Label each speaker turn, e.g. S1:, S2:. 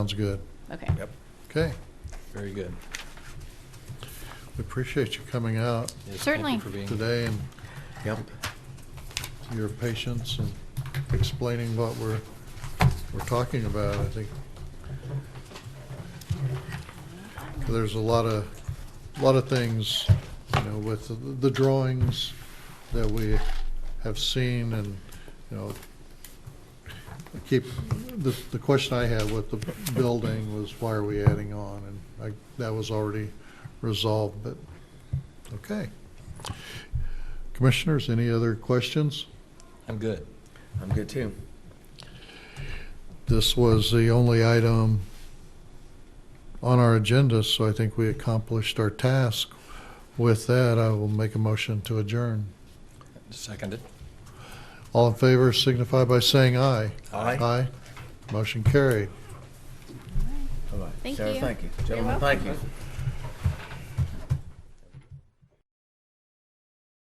S1: Sounds good.
S2: Okay.
S1: Okay,
S3: Very good.
S1: we appreciate you coming out
S3: Yes, thank you
S2: Certainly.
S3: for being-
S1: today and
S3: Yep.
S1: your patience and explaining what we're, we're talking about, I think. There's a lot of, lot of things, you know, with the- the drawings that we have seen and, you know, I keep, the, the question I had with the building was why are we adding on? And I, that was already resolved, but, okay. Commissioners, any other questions?
S3: I'm good.
S4: I'm good too.
S1: This was the only item on our agenda, so I think we accomplished our task. With that, I will make a motion to adjourn.
S3: Seconded.
S1: All in favor signify by saying aye.
S4: Aye.
S1: Aye. Motion carried.
S4: All right.
S2: Thank
S4: Sarah,
S2: you.
S4: thank you.
S2: You're
S4: Gentlemen, thank you.